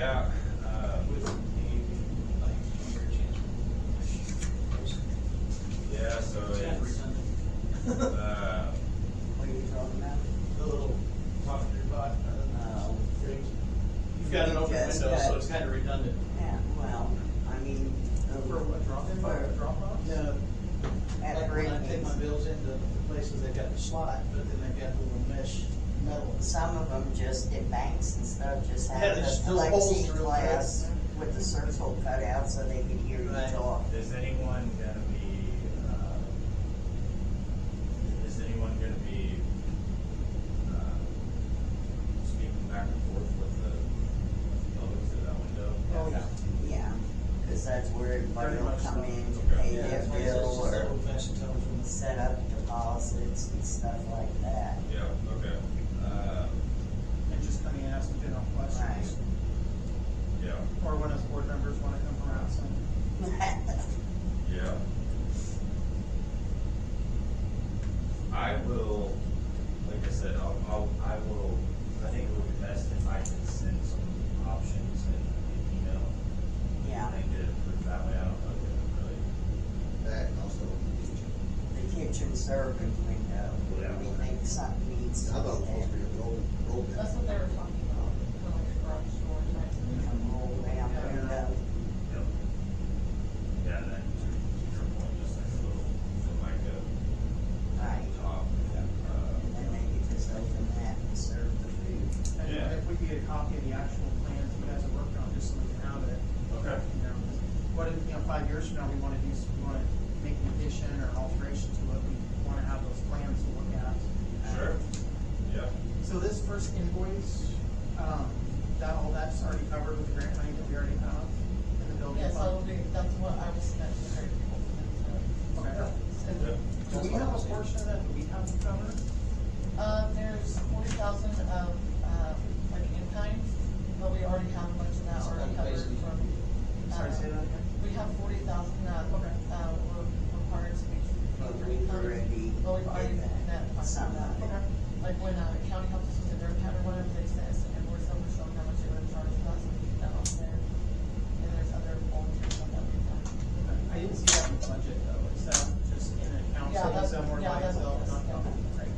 out, uh, with the team, yeah, so it's, uh, The little laundry bot, uh, thing. You've got an open window, Yes, so but- it's kind of redundant. Yeah, well, I mean. um, For what, drop-in, for- drop-off? No. At Like when I take my Brittany's. bills into places, they've got the slot, but then they've got the little mesh metal. Some of them just in banks and stuff, just Yeah, have the there's still holes through it. plexiglass with the circle cut out so they can hear you Right. talk. is anyone gonna be, uh, is anyone gonna be, uh, speaking back and forth with the public through that window? Oh, yeah. Yeah, cause that's where everybody Pretty will much come so. in to Okay. pay Yeah, their it's like bill just or old fashioned telephone. set up deposits and stuff like that. Yeah, okay, uh, and just coming and asking general questions. yeah, Or when us board members wanna come around, so. yeah. I will, like I said, I'll, I'll, I will, I think it would be best if I can send some options in an email. Yeah, They did it for that way, I don't know, if That also, the kitchen serving window, Yeah. we think something needs I to thought it was be there. supposed to be a roll, roll That's what they were talking about, for like a garage door type You of can roll down the window. it really. Yeah, and then to your point, just like a little, the mic Right, up top, and uh, then they could just open that and serve the food. And Yeah. if we could get a copy of the actual plans you guys have worked on, just so we can have it, Uh, okay, you know, 'cause what if, you know, five years from now, we wanna do, some- we wanna make an addition or alteration to it, we wanna have those plans to look at. sure, yeah, So this first invoice, um, that, all that's already covered with the grant money that we already have in the thing. building Yeah, so I'll fund? do, that's what I was mentioning, very people from Okay. yeah, Do we have a portion of that, do we have to cover? Uh, there's forty thousand of, uh, like in kind, but we already have much of that It's already covered basically- from. Sorry, uh, say that again? We have forty thousand that, Okay. uh, we're required to make. But we've already Well, we've already did done that, that, part some of that. of it. Like when, uh, county helps us with the road pad or whatever, they send us an invoice, so we're showing how much they would have charged us, and we keep that on there. And there's other volunteer stuff that we've done. I didn't see that in the budget though, is that just in an account Yeah, setting that's- somewhere yeah, by that's- itself? not- that's- yeah. okay, great.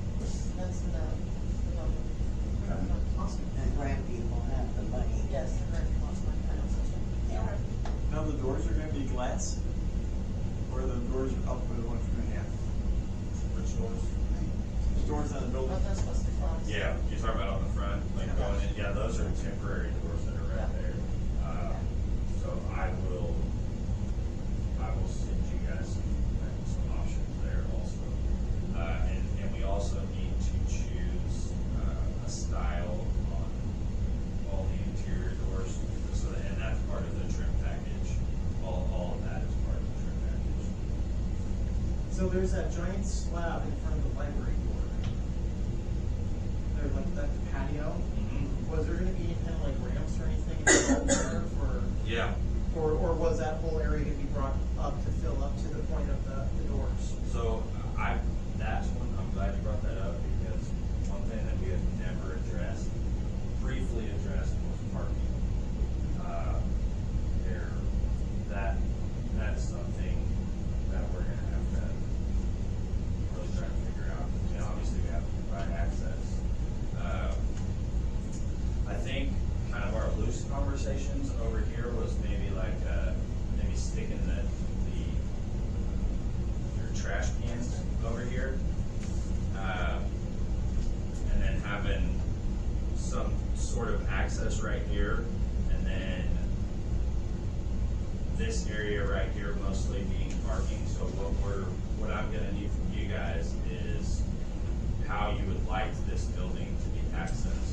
That's in the, the building. Okay, Awesome. The grand people have the money. Yes, the very cost of my final session. Yeah. Now the doors are gonna be glass? Or the doors are up with the one from in half? which doors? There's doors on But the building? that's supposed to be fast. Yeah, you're talking about on the front, like going in, yeah, those are temporary doors that are right there. Uh, So I will, I will send you guys some, like, some options there also. Uh, and, and we also need to choose, uh, a style on all the interior doors. So, that- and that's part of the trim package, all, all of that is part of the trim package. So there's that giant slab in front of the library door. There, like, that patio, was there gonna be any kind of like ramps or anything involved there for, Yeah, or, or was that whole area gonna be brought up to fill up to the point of the, the doors? So I, that's one, I'm glad you brought that up because one thing that we have never addressed, briefly addressed was parking. Uh, There, that, that's something that we're gonna have to really try to figure out. I mean, obviously we have to provide access. Uh, I think kind of our loose conversations over here was maybe like, uh, maybe sticking the, the your trash cans over here. Uh, and then having some sort of access right here, and then this area right here mostly being parking. So what we're, what I'm gonna need from you guys is how you would like this building to be accessed. Uh,